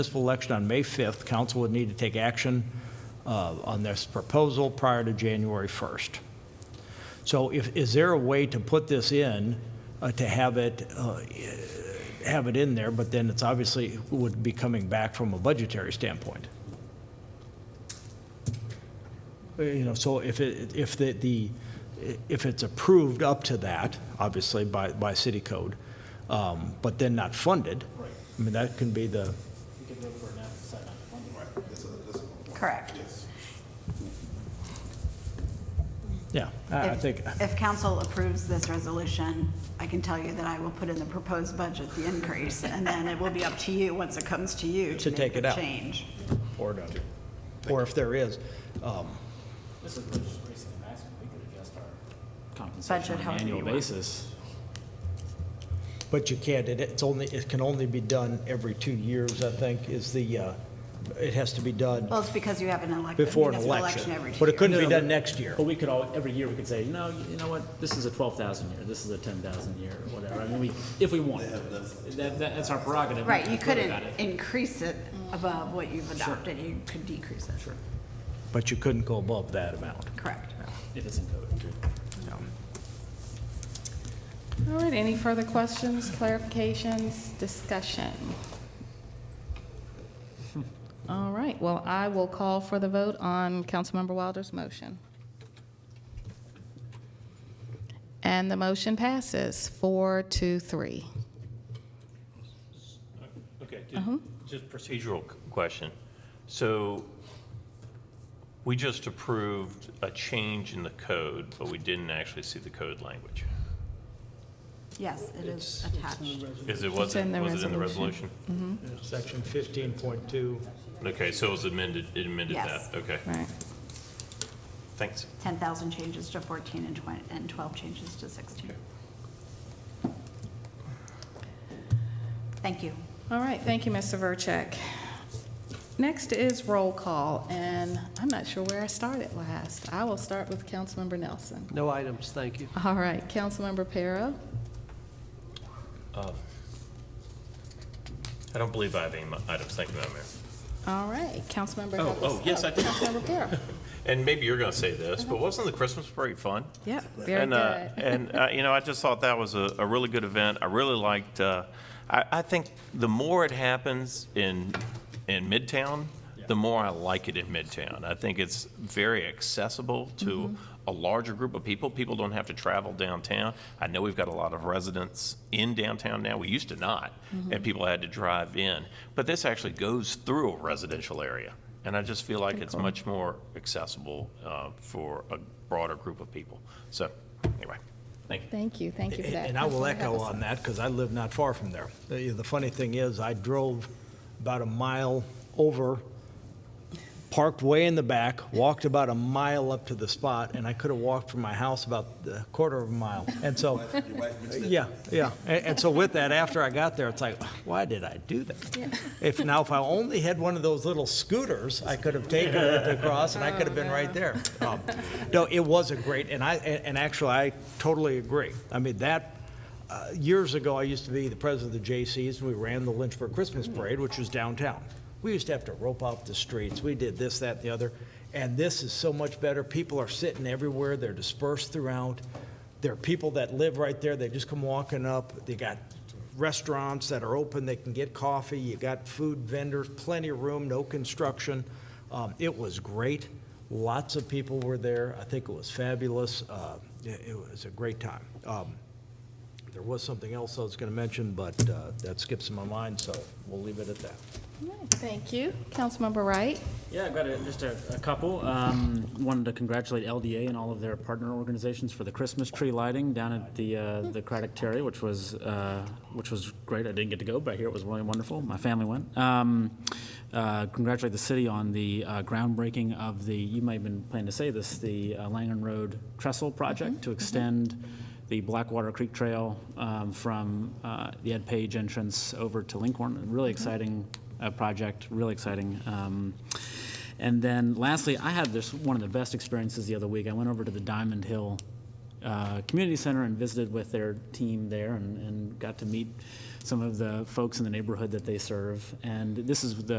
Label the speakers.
Speaker 1: municipal election on May 5th, council would need to take action uh, on this proposal prior to January 1st. So if, is there a way to put this in, uh, to have it, uh, have it in there, but then it's obviously would be coming back from a budgetary standpoint? Uh, You know, so if it, if the, the, if it's approved up to that, obviously by, by city code, um, but then not funded. I mean, that can be the,
Speaker 2: Correct.
Speaker 1: yeah, I I
Speaker 2: If-
Speaker 1: think,
Speaker 2: If council approves this resolution, I can tell you that I will put in the proposed budget the increase, and then it will be up to you, once it comes to you,
Speaker 1: To
Speaker 2: to
Speaker 1: take
Speaker 2: make
Speaker 1: it
Speaker 2: the
Speaker 1: out.
Speaker 2: change.
Speaker 1: or not, or if there is, um,
Speaker 3: This is just raising the maximum, we could adjust our compensation
Speaker 2: Budget
Speaker 3: on an
Speaker 2: however
Speaker 3: annual
Speaker 2: you want.
Speaker 3: basis.
Speaker 1: But you can't, it- it's only, it can only be done every two years, I think, is the, uh, it has to be done
Speaker 2: Well, it's because you have an elec-
Speaker 1: before an
Speaker 2: municipal
Speaker 1: election.
Speaker 2: election every two
Speaker 1: But it
Speaker 2: years.
Speaker 1: couldn't be
Speaker 3: No, no,
Speaker 1: done next year.
Speaker 3: But we could all, every year, we could say, no, you know what, this is a twelve thousand year, this is a ten thousand year, or whatever, I mean, we, if we want. That, that, that's our prerogative. we
Speaker 2: Right,
Speaker 3: can
Speaker 2: you
Speaker 3: vote
Speaker 2: couldn't
Speaker 3: about it.
Speaker 2: increase it above what you've adopted, you could decrease it. Sure.
Speaker 1: But you couldn't go above that amount.
Speaker 2: Correct.
Speaker 3: If it's in code.
Speaker 4: All right, any further questions, clarifications, discussion? All right, well, I will call for the vote on Councilmember Wilder's motion. And the motion passes four to three.
Speaker 5: Okay, ju-
Speaker 4: Uh-huh.
Speaker 5: just procedural c- question. So we just approved a change in the code, but we didn't actually see the code language.
Speaker 2: Yes, it is attached.
Speaker 5: Is it, was it,
Speaker 4: in the
Speaker 5: was it in the
Speaker 4: resolution.
Speaker 5: resolution?
Speaker 1: Section 15.2.
Speaker 5: Okay, so it was amended, it amended
Speaker 2: Yes.
Speaker 5: that? Okay,
Speaker 4: Right.
Speaker 5: thanks.
Speaker 2: 10,000 changes to 14 and 20, and 12 changes to 16. Thank you.
Speaker 4: All right, thank you, Mr. Vercheck. Next is roll call, and I'm not sure where I started last. I will start with Councilmember Nelson.
Speaker 6: No items, thank you.
Speaker 4: All right, Councilmember Para.
Speaker 5: I don't believe I have any mi- items, thank you, Madam Mayor.
Speaker 4: All right, Councilmember.
Speaker 5: Oh,
Speaker 4: Hubbard-
Speaker 5: oh, yes, I do.
Speaker 4: Councilmember Para.
Speaker 5: And maybe you're going to say this, but wasn't the Christmas parade fun?
Speaker 4: Yep, Uh-huh. very
Speaker 5: and, uh,
Speaker 4: good.
Speaker 1: eh.
Speaker 5: and uh, you know, I just thought that was a, a really good event. I really liked. Uh, I, I think the more it happens in in Midtown, the more I like it in Midtown. I think it's very accessible to a larger group of people. People don't have to travel downtown. I know we've got a lot of residents in downtown now. We used to not, and people had to drive in. But this actually goes through a residential area. And I just feel like it's much more accessible uh, for a broader group of people. So, anyway, thank you.
Speaker 4: Thank you, thank you for that.
Speaker 1: And I will
Speaker 4: Councilmember
Speaker 1: echo
Speaker 4: Hubbard.
Speaker 1: on that, because I live not far from there. The the funny thing is, I drove about a mile over, parked way in the back, walked about a mile up to the spot, and I could have walked from my house about a quarter of a mile. And so, yeah, yeah. And and so with that, after I got there, it's like, why did I do that? If, now, if I only had one of those little scooters, I could have taken it across, and I could have been right there. Um, No, it was a great, and I, and and actually, I totally agree. I mean, that, uh, years ago, I used to be the president of the J.C.'s, and we ran the Lynchburg Christmas Parade, which was downtown. We used to have to rope out the streets, we did this, that, and the other, and this is so much better. People are sitting everywhere, they're dispersed throughout. There are people that live right there, they just come walking up, they got restaurants that are open, they can get coffee, you got food vendors, plenty of room, no construction. Um, It was great, lots of people were there, I think it was fabulous, Uh, it it was a great time. Um, there was something else I was going to mention, but uh, that skips my mind, so we'll leave it at that.
Speaker 4: All right, Thank you, Councilmember Wright.
Speaker 3: Yeah, I've got a, just a, a couple. Um, wanted to congratulate LDA and all of their partner organizations for the Christmas tree lighting down at the, uh, the Craddock Terry, which was, uh, which was great. I didn't get to go, but I hear it was really wonderful. My family went. Um, uh, congratulate the city on the, uh, groundbreaking of the, you might have been planning to say this, the uh, Langen Road Trestle project to extend the Blackwater Creek Trail, um, from, uh, the Ed Page entrance over to Lincoln. Really exciting uh, project, really exciting. Um, And then lastly, I had this, one of the best experiences the other week. I went over to the Diamond Hill uh, community center and visited with their team there and, and got to meet some of the folks in the neighborhood that they serve. And this is the